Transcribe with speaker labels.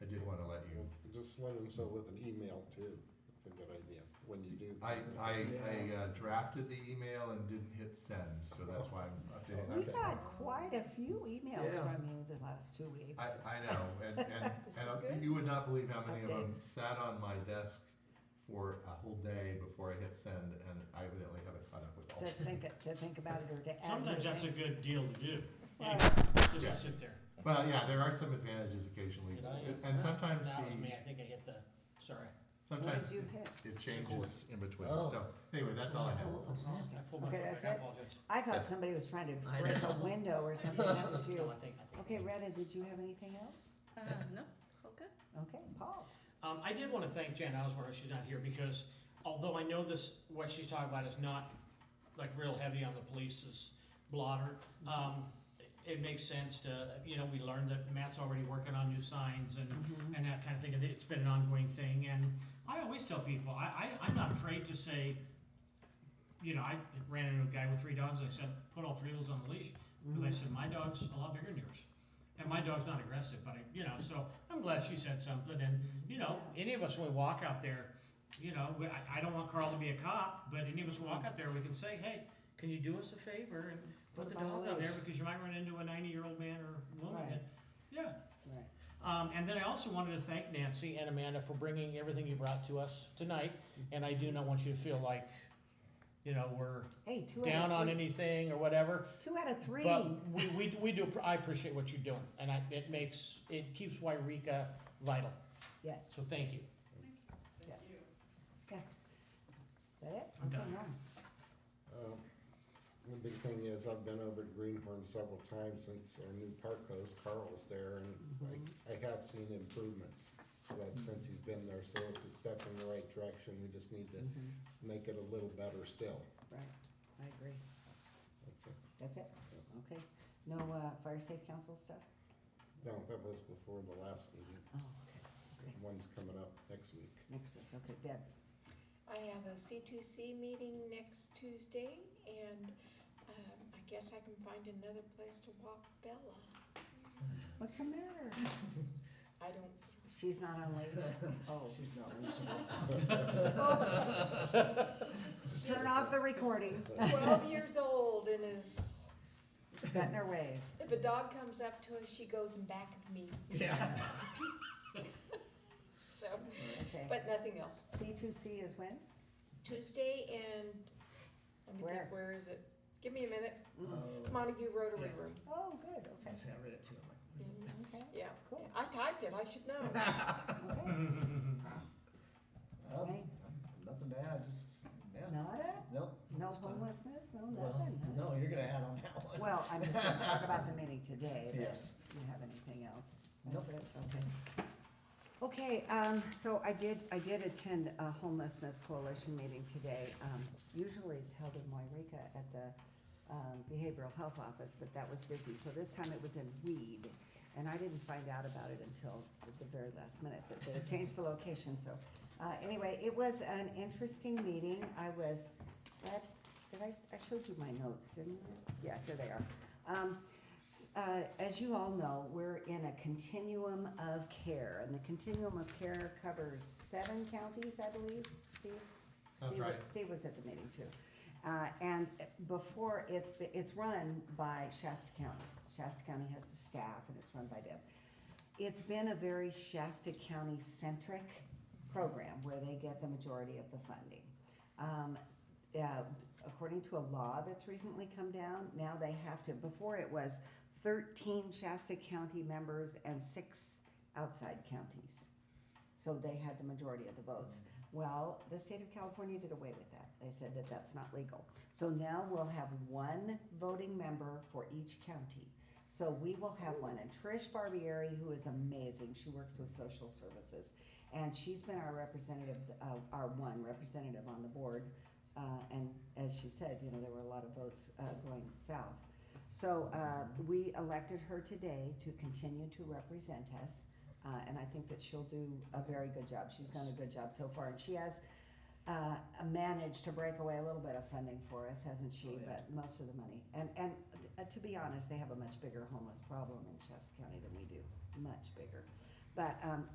Speaker 1: just let them so with an email too. It's a good idea when you do.
Speaker 2: I,
Speaker 1: that.
Speaker 2: I, I uh, drafted the email and didn't hit send, so that's why I'm updating
Speaker 3: We
Speaker 2: that.
Speaker 3: got quite a few emails
Speaker 4: Yeah.
Speaker 3: from you the last two weeks.
Speaker 2: I, I know, and, and,
Speaker 3: This
Speaker 2: and
Speaker 3: is
Speaker 2: I-
Speaker 3: good.
Speaker 2: you would not believe how many of them
Speaker 3: Updates.
Speaker 2: sat on my desk for a whole day before I hit send, and I evidently haven't caught up with all
Speaker 3: To
Speaker 2: of them.
Speaker 3: think, to think about it or to add.
Speaker 5: Sometimes
Speaker 3: new
Speaker 5: that's a
Speaker 3: things.
Speaker 5: good deal to do.
Speaker 3: Right.
Speaker 5: Just
Speaker 2: Yeah.
Speaker 5: to sit there.
Speaker 2: Well, yeah, there are some advantages occasionally,
Speaker 5: Did I-
Speaker 2: and sometimes
Speaker 5: That was
Speaker 2: the,
Speaker 5: me, I think I hit the, sorry,
Speaker 3: What
Speaker 2: sometimes
Speaker 3: did you hit?
Speaker 2: it changes in between,
Speaker 1: Oh.
Speaker 2: so, anyway, that's all I have.
Speaker 5: I pulled my,
Speaker 3: Okay,
Speaker 5: phone
Speaker 3: that's
Speaker 5: back. I
Speaker 3: it?
Speaker 5: apologize.
Speaker 3: I thought somebody was trying to
Speaker 4: I
Speaker 3: break a
Speaker 4: know.
Speaker 3: window or something. That was
Speaker 5: No,
Speaker 3: you.
Speaker 5: I think, I think.
Speaker 3: Okay, Retta, did you have anything else?
Speaker 6: Uh, no, it's all good.
Speaker 3: Okay, Paul.
Speaker 5: Um, I did wanna thank Jan Osborne, she's not here, because although I know this, what she's talking about is not like real heavy on the police's blotter, um, it makes sense to, you know, we learned that Matt's already working on new signs and, and that kind of thing, and it's been an ongoing thing, and I always tell people, I, I, I'm not afraid to say, you know, I ran into a guy with three dogs, and I said, put all three of those on the leash, because I said, my dog's a lot bigger than yours. And my dog's not aggressive, but I, you know, so I'm glad she said something, and, you know, any of us when we walk out there, you know, we- I, I don't want Carl to be a cop, but any of us walk out there, we can say, hey, can you do us a favor and put the
Speaker 3: Put 'em on
Speaker 5: dog
Speaker 3: the
Speaker 5: on there,
Speaker 3: leash."
Speaker 5: because you might run into a ninety-year-old man or woman,
Speaker 3: Right.
Speaker 5: and, yeah,
Speaker 3: Right.
Speaker 5: um, and then I also wanted to thank Nancy and Amanda for bringing everything you brought to us tonight. And I do not want you to feel like, you know, we're
Speaker 3: Hey, two out
Speaker 5: down
Speaker 3: of
Speaker 5: on
Speaker 3: three.
Speaker 5: anything or whatever.
Speaker 3: Two out of three.
Speaker 5: But we, we, we do, I appreciate what you're doing and I, it makes, it keeps Wairika vital.
Speaker 3: Yes,
Speaker 5: So thank you.
Speaker 3: yes. Yes. Is that it?
Speaker 5: I'm
Speaker 3: Okay,
Speaker 5: done.
Speaker 3: Norm.
Speaker 1: Um, The big thing is, I've been over to Greenhorn several times since our new park host Carl's there,
Speaker 3: Mm-hmm.
Speaker 1: and I, I have seen improvements. Like since he's been there, so it's a step in the right direction, we just need to
Speaker 3: Mhm.
Speaker 1: make it a little better still.
Speaker 3: Right, I agree.
Speaker 1: That's it.
Speaker 3: That's it? Okay. No, uh, fire safe council stuff?
Speaker 1: No, that was before the last meeting,
Speaker 3: Oh, okay, okay.
Speaker 1: one's coming up next week.
Speaker 3: Next week, okay, Deb.
Speaker 7: I have a C2C meeting next Tuesday, and um, I guess I can find another place to walk Bella.
Speaker 3: What's the matter?
Speaker 7: I don't,
Speaker 3: She's not on leave? Oh.
Speaker 4: She's not reasonable.
Speaker 3: Turn off the recording.
Speaker 7: 12 years old and is,
Speaker 3: Set in her ways.
Speaker 7: if a dog comes up to us, she goes in back of me,
Speaker 5: Yeah.
Speaker 7: so,
Speaker 3: Okay.
Speaker 7: but nothing else.
Speaker 3: C2C is when?
Speaker 7: Tuesday and, let me
Speaker 3: Where?
Speaker 7: think, where is it? Give me a minute.
Speaker 4: Oh,
Speaker 7: Montague Rotary Room.
Speaker 3: Oh, good,
Speaker 4: I
Speaker 3: okay.
Speaker 4: was gonna say, I read it too, I'm like, where's it?
Speaker 7: Mhm.
Speaker 3: Okay,
Speaker 7: Yeah,
Speaker 3: Cool.
Speaker 7: I typed it, I should know.
Speaker 3: okay.
Speaker 4: Um,
Speaker 3: Right.
Speaker 4: Nothing to add, just, yeah,
Speaker 3: Nada?
Speaker 4: nope.
Speaker 3: No
Speaker 4: just done.
Speaker 3: homelessness, no
Speaker 4: Well,
Speaker 3: nothing? huh?
Speaker 4: no, you're gonna add on that one.
Speaker 3: Well, I'm just gonna talk about the meeting today. but
Speaker 4: Yes.
Speaker 3: Do you have anything else?
Speaker 4: Nope.
Speaker 3: That's it, okay. Okay, um, so I did, I did attend a homelessness coalition meeting today. Um, usually it's held in Moirica at the, um, Behavioral Health Office, but that was busy. So this time it was in Weed, and I didn't find out about it until the- the very last minute, but they changed the location, so. Uh, anyway, it was an interesting meeting. I was, glad- did I, I showed you my notes, didn't I? Yeah, here they are. Um, s- uh, as you all know, we're in a continuum of care, and the continuum of care covers seven counties, I believe, Steve?
Speaker 2: That's
Speaker 3: Steve-
Speaker 2: right.
Speaker 3: Steve was at the meeting too. Uh, and before, it's, be- it's run by Shasta County. Shasta County has the staff, and it's run by them. It's been a very Shasta County-centric program where they get the majority of the funding. Um, uh, according to a law that's recently come down, now they have to, before it was thirteen Shasta County members and six outside counties. So they had the majority of the votes. Well, the state of California did away with that. They said that that's not legal. So now we'll have one voting member for each county. So we will have one, and Trish Barbieri, who is amazing, she works with social services. And she's been our representative, uh, our one representative on the board. Uh, and as she said, you know, there were a lot of votes, uh, going south. So, uh, we elected her today to continue to represent us. Uh, and I think that she'll do a very good job. She's done a good job so far, and she has uh, managed to break away a little bit of funding for us, hasn't she?
Speaker 4: Oh, yeah.
Speaker 3: But most of the money, and and uh, to be honest, they have a much bigger homeless problem in Shasta County than we do, much bigger. But um,